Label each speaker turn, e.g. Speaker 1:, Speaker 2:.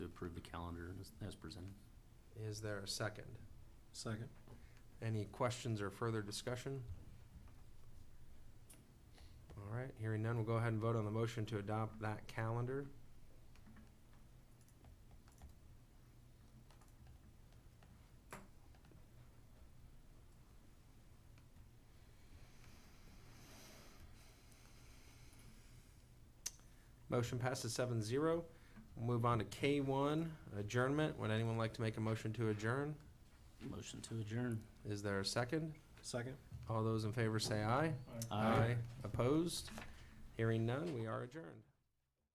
Speaker 1: Jefferson. Is there a second?
Speaker 2: Second.
Speaker 1: Any questions or further discussion? All right, hearing none, we'll go ahead and vote on the motion to adopt that calendar. Motion passes seven zero. Move on to K one, adjournment. Would anyone like to make a motion to adjourn?
Speaker 3: Motion to adjourn.
Speaker 1: Is there a second?
Speaker 2: Second.
Speaker 1: All those in favor say aye.
Speaker 3: Aye.
Speaker 1: Opposed? Hearing none, we are adjourned.